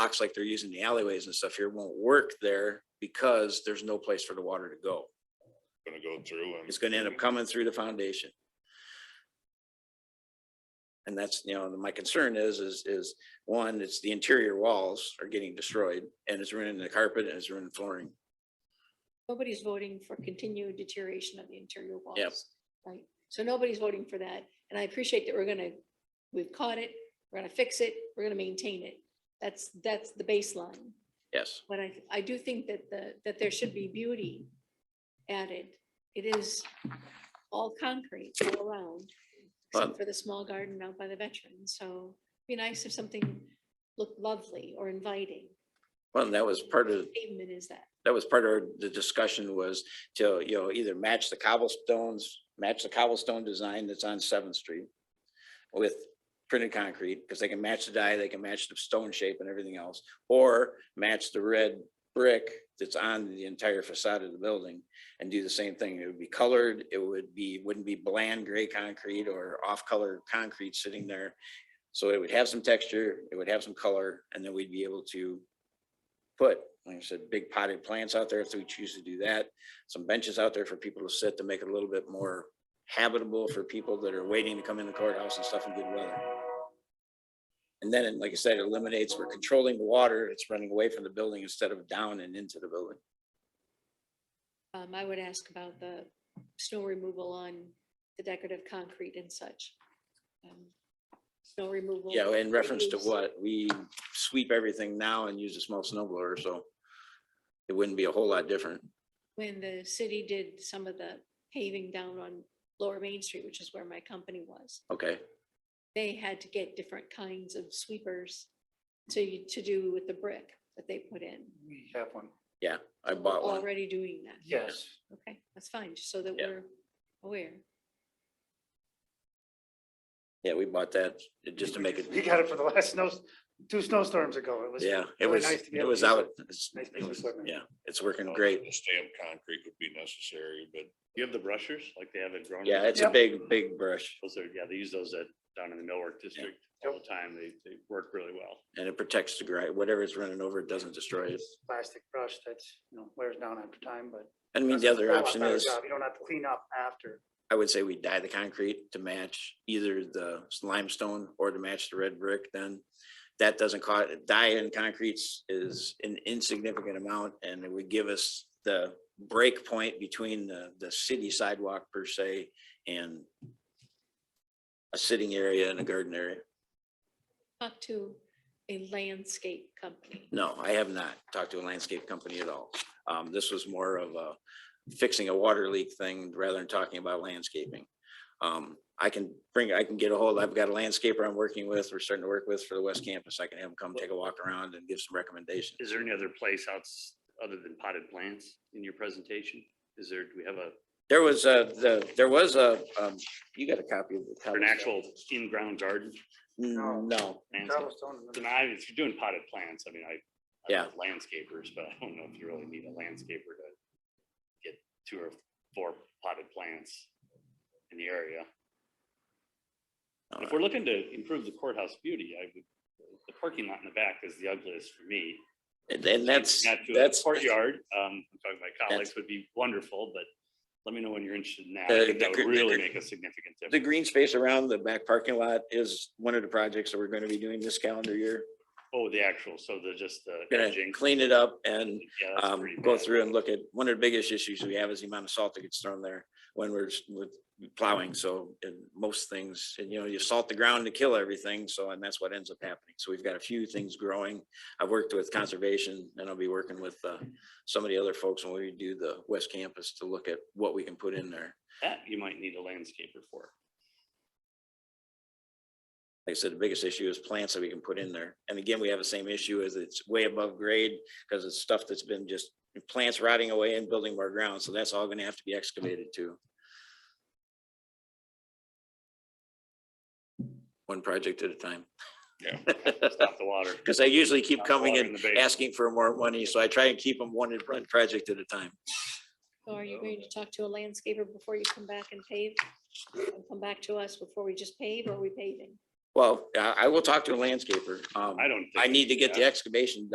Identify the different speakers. Speaker 1: blocks like they're using the alleyways and stuff here won't work there because there's no place for the water to go.
Speaker 2: gonna go through and.
Speaker 1: It's gonna end up coming through the foundation. And that's, you know, my concern is, is, is one, it's the interior walls are getting destroyed and it's ruining the carpet and it's ruining flooring.
Speaker 3: Nobody's voting for continued deterioration of the interior walls.
Speaker 1: Yep.
Speaker 3: Right, so nobody's voting for that, and I appreciate that we're gonna, we've caught it, we're gonna fix it, we're gonna maintain it. That's, that's the baseline,
Speaker 1: Yes,
Speaker 3: but I, I do think that the, that there should be beauty added. It is all concrete all around,
Speaker 1: But-
Speaker 3: except for the small garden out by the veterans, so it'd be nice if something looked lovely or inviting.
Speaker 1: well, and that was part of,
Speaker 3: Pavement is that.
Speaker 1: that was part of the discussion was to, you know, either match the cobblestones, match the cobblestone design that's on Seventh Street with printed concrete, because they can match the dye, they can match the stone shape and everything else, or match the red brick that's on the entire facade of the building and do the same thing. It would be colored, it would be, wouldn't be bland gray concrete or off-color concrete sitting there. So it would have some texture, it would have some color, and then we'd be able to put, like I said, big potted plants out there if we choose to do that. Some benches out there for people to sit to make it a little bit more habitable for people that are waiting to come in the courthouse and stuff in good weather. And then, like I said, it eliminates, we're controlling the water, it's running away from the building instead of down and into the building.
Speaker 3: Um, I would ask about the snow removal on the decorative concrete and such. Um, Snow removal.
Speaker 1: Yeah, in reference to
Speaker 3: reduce-
Speaker 1: what, we sweep everything now and use a small snow blower, so it wouldn't be a whole lot different.
Speaker 3: When the city did some of the paving down on Lower Main Street, which is where my company was,
Speaker 1: Okay,
Speaker 3: they had to get different kinds of sweepers to, to do with the brick that they put in.
Speaker 4: We have one,
Speaker 1: I bought one.
Speaker 3: Already doing that.
Speaker 4: yes.
Speaker 3: Okay, that's fine, just so that
Speaker 1: Yeah.
Speaker 3: we're aware.
Speaker 1: Yeah, we bought that just to make it.
Speaker 4: We got it for the last snow, two snowstorms ago. It was.
Speaker 1: Yeah, it
Speaker 4: really
Speaker 1: was,
Speaker 4: nice to be
Speaker 1: it
Speaker 4: able
Speaker 1: was
Speaker 4: to use
Speaker 1: out. it's-
Speaker 4: Nice
Speaker 1: it
Speaker 4: piece of
Speaker 1: was-
Speaker 4: equipment.
Speaker 1: Yeah, it's working
Speaker 4: Oh,
Speaker 2: Well,
Speaker 1: great.
Speaker 2: The stamp concrete would be necessary, but
Speaker 5: You have the brushers, like they have in Groningen?
Speaker 1: Yeah, it's a
Speaker 4: Yep.
Speaker 1: big, big brush
Speaker 5: Those are, yeah, they use those at, down in the millwork district all the time. They, they work really well.
Speaker 1: and it protects the grind. Whatever is running over, it doesn't destroy it.
Speaker 4: It's Plastic brush that's, you know, wears down after time, but.
Speaker 1: I mean, the
Speaker 4: that's a
Speaker 1: other
Speaker 4: whole lot
Speaker 1: option
Speaker 4: better
Speaker 1: is,
Speaker 4: job. You don't have to clean up after.
Speaker 1: I would say we dye the concrete to match either the limestone or to match the red brick then. That doesn't cost, dye in concretes is an insignificant amount and it would give us the break point between the, the city sidewalk per se and a sitting area and a garden area.
Speaker 3: Talk to a landscape company.
Speaker 1: No, I have not talked to a landscape company at all. Um, this was more of a fixing a water leak thing rather than talking about landscaping. Um, I can bring, I can get a hold, I've got a landscaper I'm working with, we're starting to work with for the West Campus. I can have him come take a walk around and give some recommendations.
Speaker 5: Is there any other place outs, other than potted plants in your presentation? Is there, do we have a,
Speaker 1: There was a, the, there was a, um, you got a copy of the.
Speaker 5: or
Speaker 1: cobblestone.
Speaker 5: an actual in-ground garden?
Speaker 1: Mm, No,
Speaker 5: landscape?
Speaker 4: Cobblestone and
Speaker 5: And I, if you're doing potted plants, I mean, I. I
Speaker 1: Yeah.
Speaker 5: love Landscapers, but I don't know if you really need a landscaper to get two or four potted plants in the area. And If we're looking to improve the courthouse beauty, I would, the parking lot in the back is the ugliest for me.
Speaker 1: and and that's,
Speaker 5: Not to a
Speaker 1: that's.
Speaker 5: Courtyard, um, I'm talking to my colleagues would be wonderful, but let me know when you're interested in that. I
Speaker 1: Uh,
Speaker 5: think that
Speaker 1: the
Speaker 5: would
Speaker 1: gr- the
Speaker 5: really
Speaker 1: gr-
Speaker 5: make a significant
Speaker 1: The
Speaker 5: difference.
Speaker 1: green space around the back parking lot is one of the projects that we're gonna be doing this calendar year.
Speaker 5: Oh, the actual, so the, just the
Speaker 1: Gonna
Speaker 5: edging.
Speaker 1: clean it up and
Speaker 5: Yeah, that's
Speaker 1: um,
Speaker 5: pretty
Speaker 1: go
Speaker 5: bad.
Speaker 1: through and look at, one of the biggest issues we have is the amount of salt that gets thrown there when we're s- with plowing, so in most things, and you know, you salt the ground to kill everything, so, and that's what ends up happening. So we've got a few things growing. I've worked with conservation and I'll be working with uh, some of the other folks when we do the west campus to look at what we can put in there.
Speaker 5: That you might need a landscaper for.
Speaker 1: Like I said, the biggest issue is plants that we can put in there. And again, we have the same issue as it's way above grade because it's stuff that's been just plants rotting away and building more ground, so that's all gonna have to be excavated too. One project at a time.
Speaker 2: Yeah.
Speaker 5: Stop the water.
Speaker 1: Because I usually keep
Speaker 5: Not
Speaker 1: coming
Speaker 5: water in
Speaker 1: and
Speaker 5: the basement.
Speaker 1: asking for more money, so I try and keep them one one project at a time.
Speaker 3: So are you going to talk to a landscaper before you come back and pave? And Come back to us before we just pave or are we paving?
Speaker 1: Well, I, I will talk to a landscaper. Um,
Speaker 5: I don't. think
Speaker 1: I need to get
Speaker 5: that.
Speaker 1: the excavation